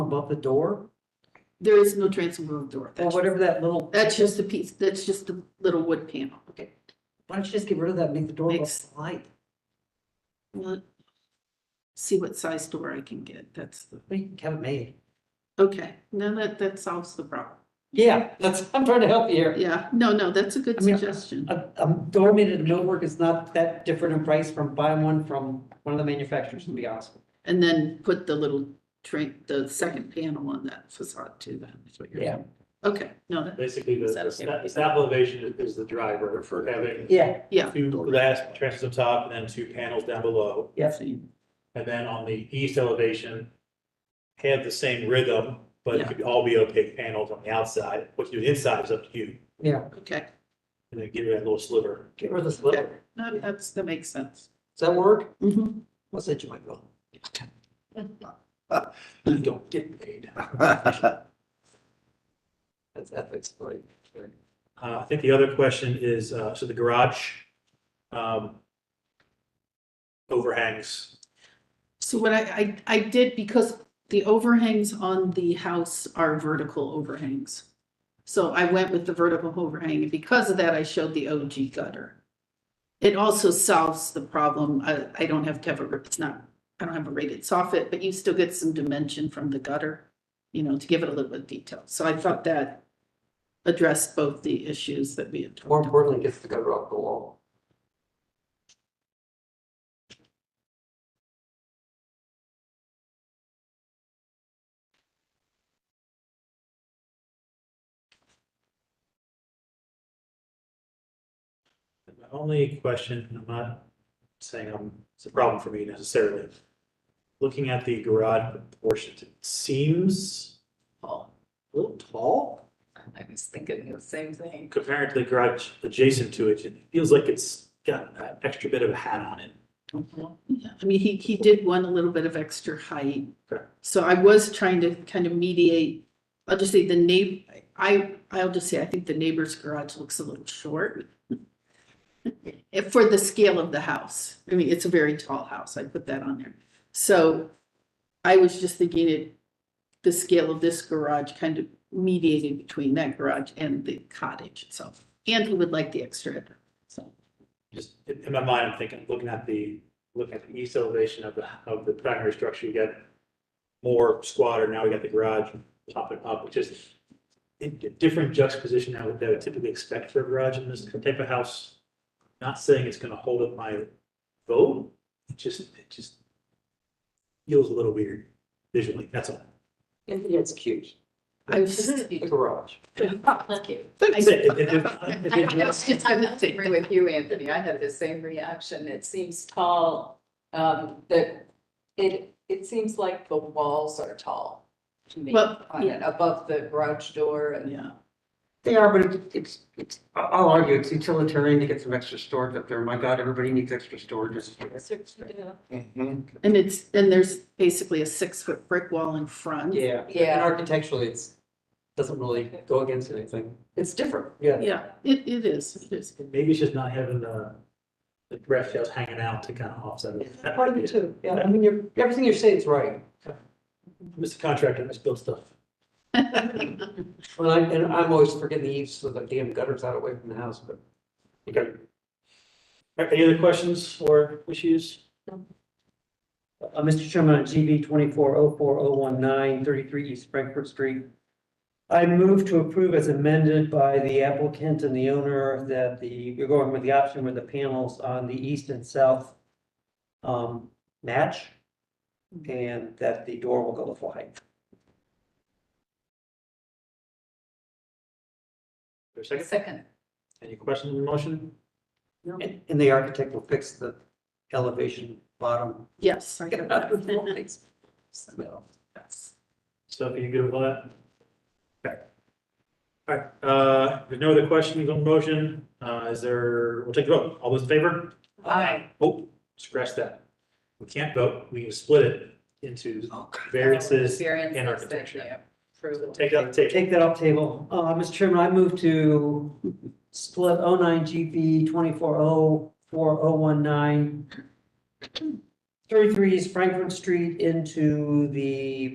above the door, There is no transom above the door. or That's, whatever that little, that's just a piece, that's just the little wood panel. okay. Why don't you just get rid of that, and make the door look Makes- light? Well, See what size door I can get. That's, the We can have it made. okay, now that, that solves the problem. Yeah, that's, I'm trying to help you here. Yeah, no, no, that's a good I mean, suggestion. A, a door made out of millwork is not that different in price from buying one from one of the manufacturers, to be honest. with And then put the little train, the second panel on that facade too then, is what you. you're, okay, no, that- Basically, the, Is that the okay? step, step elevation is, is the driver for having Yeah, yeah. two glass trusses up top and then two panels down below. yes. And then on the east elevation, have the same rhythm, but Yeah. it could all be opaque panels on the outside. What you do inside is up to you. Yeah, Okay, And then give it a little sliver. get rid of this little, does no, that's, that makes sense. that work? Mhm. What's that, Joy? Well, You don't get paid. That's ethics, right? Uh, I think the other question is, uh, so the garage, um, overhangs. So what I, I, I did, because the overhangs on the house are vertical overhangs. So I went with the vertical overhang, and because of that, I showed the OG gutter. It also solves the problem, I, I don't have to have a, it's not, I don't have a rated soffit, but you still get some dimension from the gutter, you know, to give it a little bit of detail, so I thought that addressed both the issues that we had talked More about. importantly, gets the gutter off the wall. My only question, and I'm not saying I'm, it's a problem for me necessarily. Looking at the garage proportions, it seems uh, a little tall I was thinking the same thing. compared to the garage adjacent to it. It feels like it's got an extra bit of a hat on it. Yeah, I mean, he, he did want a little bit of extra height. Okay. So I was trying to kind of mediate, I'll just say the neigh, I, I'll just say, I think the neighbor's garage looks a little short. If- For the scale of the house, I mean, it's a very tall house, I put that on there. So I was just thinking it, the scale of this garage kind of mediated between that garage and the cottage itself. And he would like the extra, so, Just in in my mind, I'm thinking, looking at the, looking at the east elevation of the, of the primary structure, you got more squatter, now we got the garage popping up, which is a d- different juxtaposition I would, that I would typically expect for a garage in this type of house. Not saying it's gonna hold up my vote, it just, it just feels a little weird visually, that's all. It's cute. I was just- The garage. Thank you. That's it. If- if- if- if I it- was just gonna agree with you, Anthony. I had the same reaction. It seems tall. Um, that it, it seems like the walls are tall to me. Well, on it, Above the garage door and. yeah. They are, but it- it's, it's, I- I'll argue, it's utilitarian to get some extra storage up there. My God, everybody needs extra storage. And it's, and there's basically a six-foot brick wall in front. Yeah. And Yeah. architecturally, it's, doesn't really go against anything. It's different. Yeah. Yeah, it, it is, it is. Maybe it's just not having the, the breath just hanging out to kind of offset it. Part of it too. Yeah, I mean, you're, everything you're saying is right. Mr. Contractor, let's build stuff. Well, I, and I'm always forgetting the eaves, so the damn gutter's out away from the house, but. Okay. Any other questions or issues? Uh, Mr. Chairman, on GB twenty-four oh four oh one nine, thirty-three East Frankfurt Street. I move to approve as amended by the applicant and the owner that the, we're going with the option where the panels on the east and south um, match, and that the door will go with height. There's a second? Second, Any questions on the motion? And, and the architect will fix the elevation bottom. Yes, I got that. So are you good with all that? Okay. All right, uh, there's no other questions on the motion. Uh, is there, we'll take the vote. All those in favor? aye. Oh, scratch that. We can't vote. We can split it into variances Variances and that architecture. they approve. Take that, take, Take that off table. Uh, Mr. Chairman, I move to split oh nine GB twenty-four oh four oh one nine thirty-three East Frankfurt Street into the